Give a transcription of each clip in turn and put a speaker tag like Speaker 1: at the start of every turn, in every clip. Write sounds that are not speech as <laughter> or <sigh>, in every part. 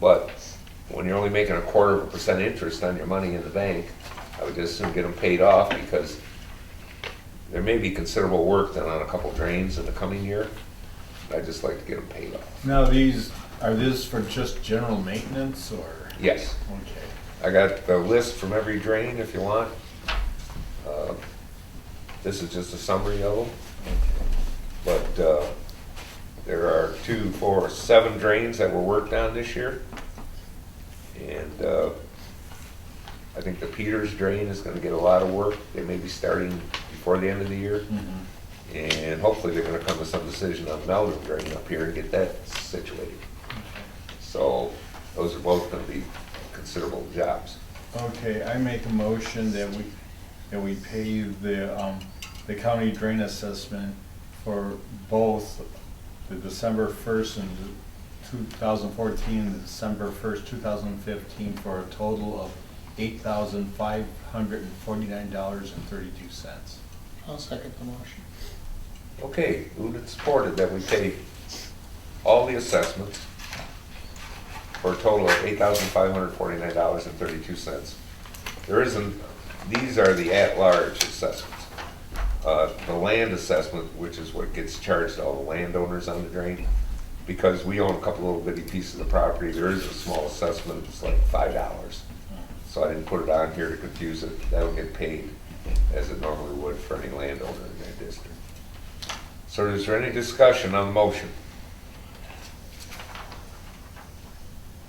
Speaker 1: But when you're only making a quarter of a percent interest on your money in the bank, I would just assume get them paid off because there may be considerable work done on a couple drains in the coming year. I'd just like to get them paid off.
Speaker 2: Now, these, are these for just general maintenance or?
Speaker 1: Yes,
Speaker 2: Okay.
Speaker 1: I got the list from every drain if you want. Uh, This is just a summary of them. But uh, there are two, four, seven drains that were worked on this year. And uh, I think the Peters drain is gonna get a lot of work. They may be starting before the end of the year. And hopefully they're gonna come to some decision on Melvin drain up here and get that situated. So those are both gonna be considerable jobs.
Speaker 2: Okay, I make a motion that we, that we pay the, um, the county drain assessment for both the December first and two thousand fourteen, and December first, two thousand fifteen, for a total of eight thousand five hundred and forty-nine dollars and thirty-two cents.
Speaker 3: I'll second the motion.
Speaker 1: Okay, moved and supported that we pay all the assessments for a total of eight thousand five hundred forty-nine dollars and thirty-two cents. There isn't, these are the at-large assessments. Uh, the land assessment, which is what gets charged to all the landowners on the drain, because we own a couple little bitty pieces of property, there is a small assessment, it's like five dollars. So I didn't put it on here to confuse it, that'll get paid as it normally would for any landowner in that district. So is there any discussion on the motion?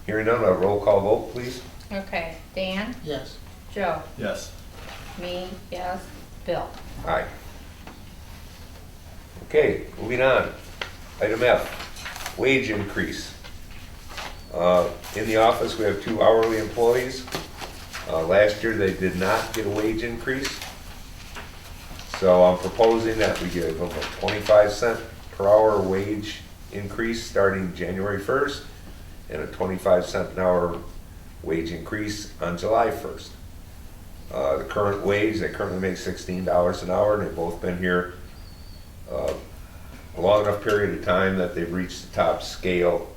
Speaker 1: Hearing none, a roll call vote, please.
Speaker 4: Okay, Dan,
Speaker 3: Yes,
Speaker 4: Joe,
Speaker 2: Yes.
Speaker 4: me, yes, Bill.
Speaker 1: Aye. Okay, moving on. Item F, wage increase. Uh, In the office, we have two hourly employees. Uh, Last year, they did not get a wage increase. So I'm proposing that we give them a 25 cent per hour wage increase starting January 1st and a 25 cent an hour wage increase on July 1st. Uh, The current wage, they currently make sixteen dollars an hour, and they've both been here uh, a long enough period of time that they've reached the top scale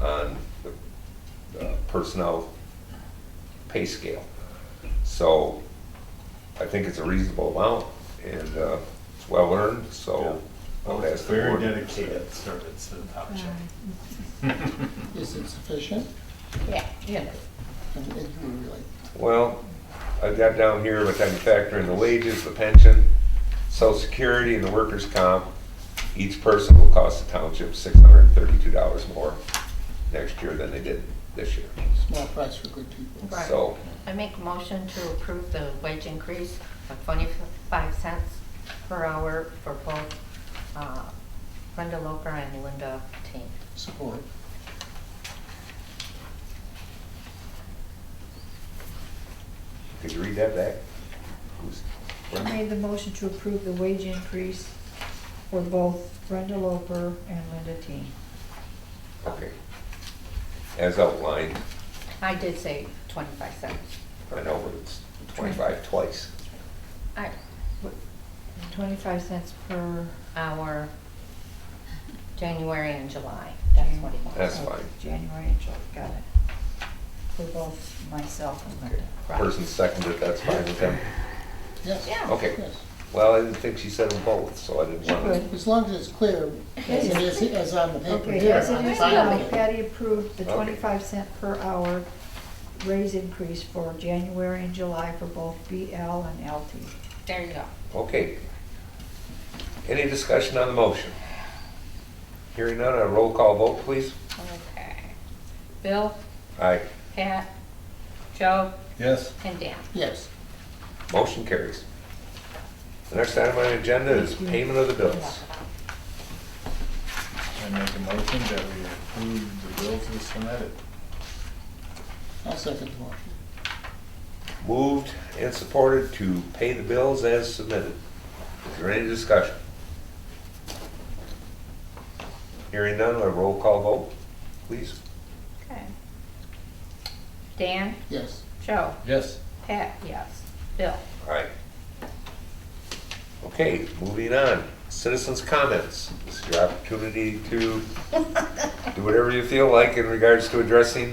Speaker 1: on the uh, personnel pay scale. So I think it's a reasonable amount, and uh, it's well earned, so I would ask Oh, the
Speaker 2: Very
Speaker 1: board.
Speaker 2: dedicated service to the township.
Speaker 1: <laughs>
Speaker 3: is it sufficient?
Speaker 4: Yeah, yeah.
Speaker 3: And it would be like,
Speaker 1: Well, I've got down here, but then you factor in the wages, the pension, social security, and the workers' comp. Each person will cost the township six hundred and thirty-two dollars more next year than they did this year.
Speaker 3: small price for good people.
Speaker 4: Right.
Speaker 1: So,
Speaker 4: I make a motion to approve the wage increase of twenty-five cents per hour for both uh, Brenda Loper and Linda Teen.
Speaker 3: Support.
Speaker 1: could you read that back? Who's-
Speaker 5: I made the motion to approve the wage increase for both Brenda Loper and Linda Teen.
Speaker 1: Okay. As outlined,
Speaker 4: I did say twenty-five cents.
Speaker 1: I know, but it's twenty-five twice.
Speaker 4: I,
Speaker 5: Twenty-five cents per.
Speaker 4: our January and July, that's what it was.
Speaker 1: That's fine.
Speaker 5: January and July, got it. For both myself and Linda.
Speaker 1: Person seconded, that's fine with them.
Speaker 3: Yes.
Speaker 4: Yeah.
Speaker 1: Okay.
Speaker 3: Yes.
Speaker 1: Well, I didn't think she said them both, so I didn't want to.
Speaker 5: Good.
Speaker 3: As long as it's clear, as it is, as on the paper
Speaker 5: Okay,
Speaker 3: here.
Speaker 5: as it
Speaker 3: I'm
Speaker 5: is
Speaker 3: fine
Speaker 5: now,
Speaker 3: with it.
Speaker 5: Patty approved the
Speaker 1: Okay.
Speaker 5: twenty-five cent per hour raise increase for January and July for both BL and LT.
Speaker 4: There you go.
Speaker 1: Okay. Any discussion on the motion? Hearing none, a roll call vote, please.
Speaker 4: Okay. Bill,
Speaker 1: Aye.
Speaker 4: Pat, Joe,
Speaker 2: Yes.
Speaker 4: and Dan.
Speaker 3: Yes,
Speaker 1: Motion carries. The next item on the agenda is payment of the bills.
Speaker 2: I make a motion that we approve the bills as submitted.
Speaker 3: I'll second the motion.
Speaker 1: Moved and supported to pay the bills as submitted. Is there any discussion? Hearing none, a roll call vote, please.
Speaker 4: Okay. Dan,
Speaker 3: Yes,
Speaker 4: Joe,
Speaker 2: Yes.
Speaker 4: Pat, yes. Bill,
Speaker 1: Aye. Okay, moving on, citizens' comments. This is your opportunity to do whatever you feel like in regards to addressing